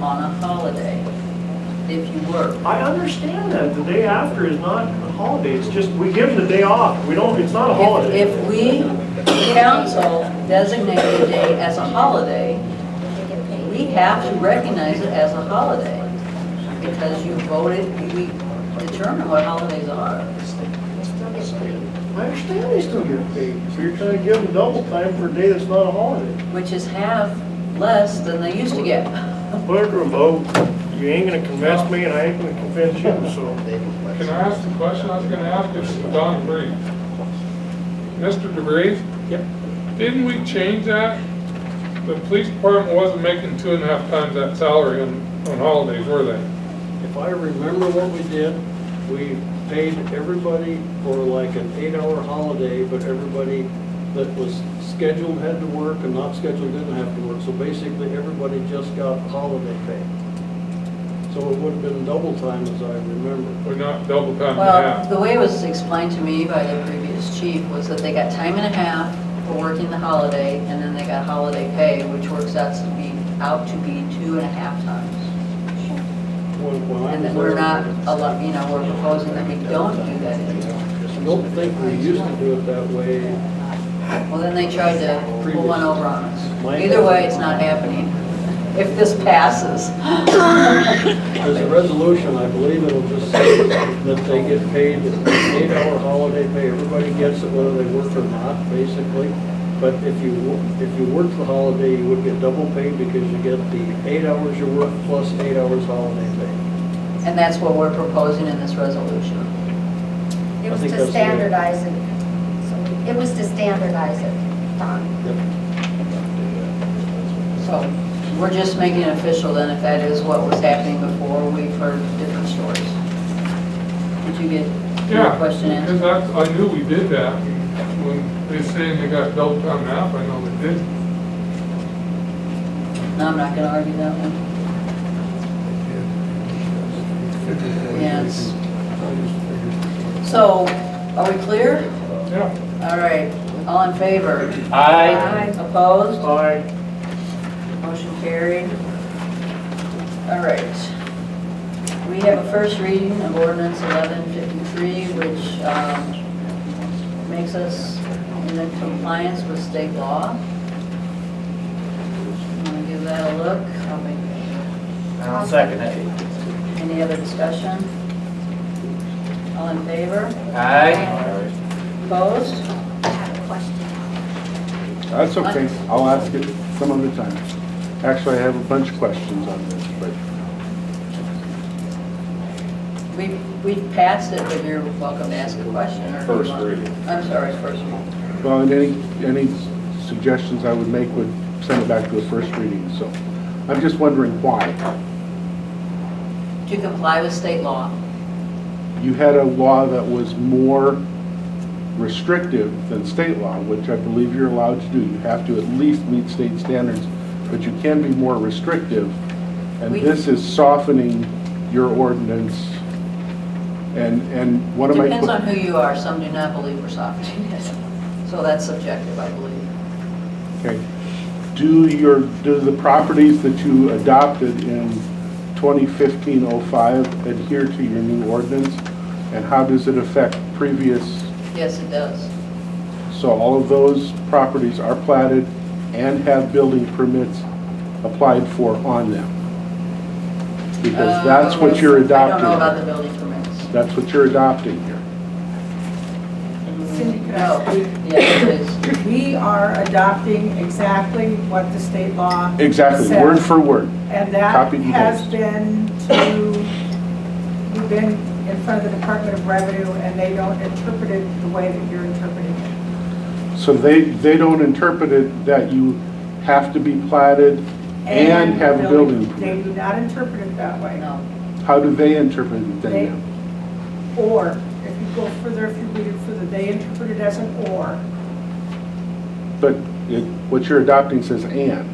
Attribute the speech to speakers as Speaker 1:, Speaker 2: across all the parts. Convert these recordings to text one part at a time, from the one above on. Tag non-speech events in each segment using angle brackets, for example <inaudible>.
Speaker 1: on a holiday if you work.
Speaker 2: I understand that, the day after is not a holiday, it's just, we give the day off, we don't, it's not a holiday.
Speaker 1: If if we, the council, designate a day as a holiday, we have to recognize it as a holiday because you voted, we determine what holidays are.
Speaker 2: I understand they still get paid, so you're trying to give them double time for a day that's not a holiday.
Speaker 1: which is half less than they used to get. <laughs>
Speaker 2: Put it to a vote, you ain't gonna convince me and I ain't gonna convince you, so.
Speaker 3: Can I ask the question I was gonna ask, it's Don DeBree. Mr. DeBree? Yep. Didn't we change that? The police department wasn't making two and a half times that salary on, on holidays, were they?
Speaker 4: If I remember what we did, we paid everybody for like an eight-hour holiday, but everybody that was scheduled had to work and not scheduled didn't have to work. So basically, everybody just got holiday pay. So it would have been double time as I remember.
Speaker 3: We're not double time and a
Speaker 1: Well,
Speaker 3: half.
Speaker 1: the way it was explained to me by the previous chief was that they got time and a half for working the holiday, and then they got holiday pay, which works out to be, out to be two and a half times.
Speaker 4: When- when I
Speaker 1: And
Speaker 4: was
Speaker 1: then we're
Speaker 4: there.
Speaker 1: not, a lot, you know, we're proposing that we don't do that anymore.
Speaker 4: I don't think we used to do it that way.
Speaker 1: Well, then they tried to pull one over on us. Either way, it's not happening, <laughs> if this passes.
Speaker 4: There's a resolution, I believe it'll just say that they get paid an eight-hour holiday pay. Everybody gets it whether they work or not, basically. But if you, wo- if you work the holiday, you would get double pay because you get the eight hours you work plus eight hours holiday pay.
Speaker 1: And that's what we're proposing in this resolution.
Speaker 5: It
Speaker 4: I
Speaker 5: was
Speaker 4: think
Speaker 5: to
Speaker 4: that's the-
Speaker 5: standardize it. So It was to standardize it, Don.
Speaker 1: So we're just making it official then if that is what was happening before. We've heard different stories. Did you get your
Speaker 3: Yeah,
Speaker 1: question
Speaker 3: because
Speaker 1: answered?
Speaker 3: that's, I knew we did that. When they saying they got double time and a half, I know they did.
Speaker 1: No, I'm not going to argue that one. Yes. So are we clear?
Speaker 3: Yeah.
Speaker 1: All right. All in favor?
Speaker 6: Aye.
Speaker 1: Opposed?
Speaker 2: I,
Speaker 1: Motion carried. All right. We have a first reading of ordinance 1153, which um, makes us in compliance with state law. Want to give that a look? I'll make-
Speaker 6: I'll second it.
Speaker 1: Any other discussion? All in favor?
Speaker 6: Aye.
Speaker 1: Opposed?
Speaker 5: I have a question.
Speaker 7: That's okay, I'll ask it some other time. Actually, I have a bunch of questions on this, but
Speaker 1: We we passed it, but you're welcome to ask a question. or if you
Speaker 8: First
Speaker 1: want-
Speaker 8: reading.
Speaker 1: I'm sorry, first reading.
Speaker 7: well, and any, any suggestions I would make would send it back to a first reading, so. I'm just wondering why.
Speaker 1: To comply with state law.
Speaker 7: You had a law that was more restrictive than state law, which I believe you're allowed to do. You have to at least meet state standards, but you can be more restrictive. And
Speaker 1: We-
Speaker 7: this is softening your ordinance. And, and one of my...
Speaker 1: Depends on who you are. Some do not believe we're sovereignty. <laughs> So that's subjective, I believe.
Speaker 7: Okay. Do your, do the properties that you adopted in 2015-05 adhere to your new ordinance? And how does it affect previous,
Speaker 1: Yes, it does.
Speaker 7: so all of those properties are platted and have building permits applied for on them? Because that's what you're
Speaker 1: Uh, I don't know about the
Speaker 7: adopting.
Speaker 1: building permits.
Speaker 7: That's what you're adopting here.
Speaker 9: Cindy, could
Speaker 1: No,
Speaker 9: I speak?
Speaker 1: yes, it is.
Speaker 9: We are adopting exactly what the state law,
Speaker 7: Exactly,
Speaker 9: Said-
Speaker 7: word for word.
Speaker 9: and that
Speaker 7: Copy and
Speaker 9: has
Speaker 7: paste.
Speaker 9: been to, we've been in front of the Department of Revenue, and they don't interpret it the way that you're interpreting it.
Speaker 7: So they, they don't interpret it that you have to be platted and have a building
Speaker 9: They
Speaker 7: permit.
Speaker 9: do not interpret it that way.
Speaker 1: No.
Speaker 7: How do they interpret it then? ma'am?
Speaker 9: Or, if you go further, if you read it further, they interpret it as an or,
Speaker 7: But it, what you're adopting says and.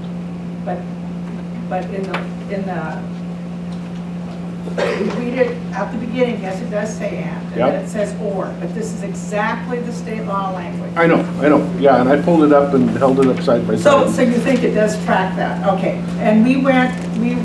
Speaker 9: but, but in the, in the, we read it at the beginning, yes, it does say and, and
Speaker 7: Yep.
Speaker 9: then it says or, but this is exactly the state law language.
Speaker 7: I know, I know, yeah, and I pulled it up and held it up side by
Speaker 9: So,
Speaker 7: side.
Speaker 9: so you think it does track that, okay. And we went, we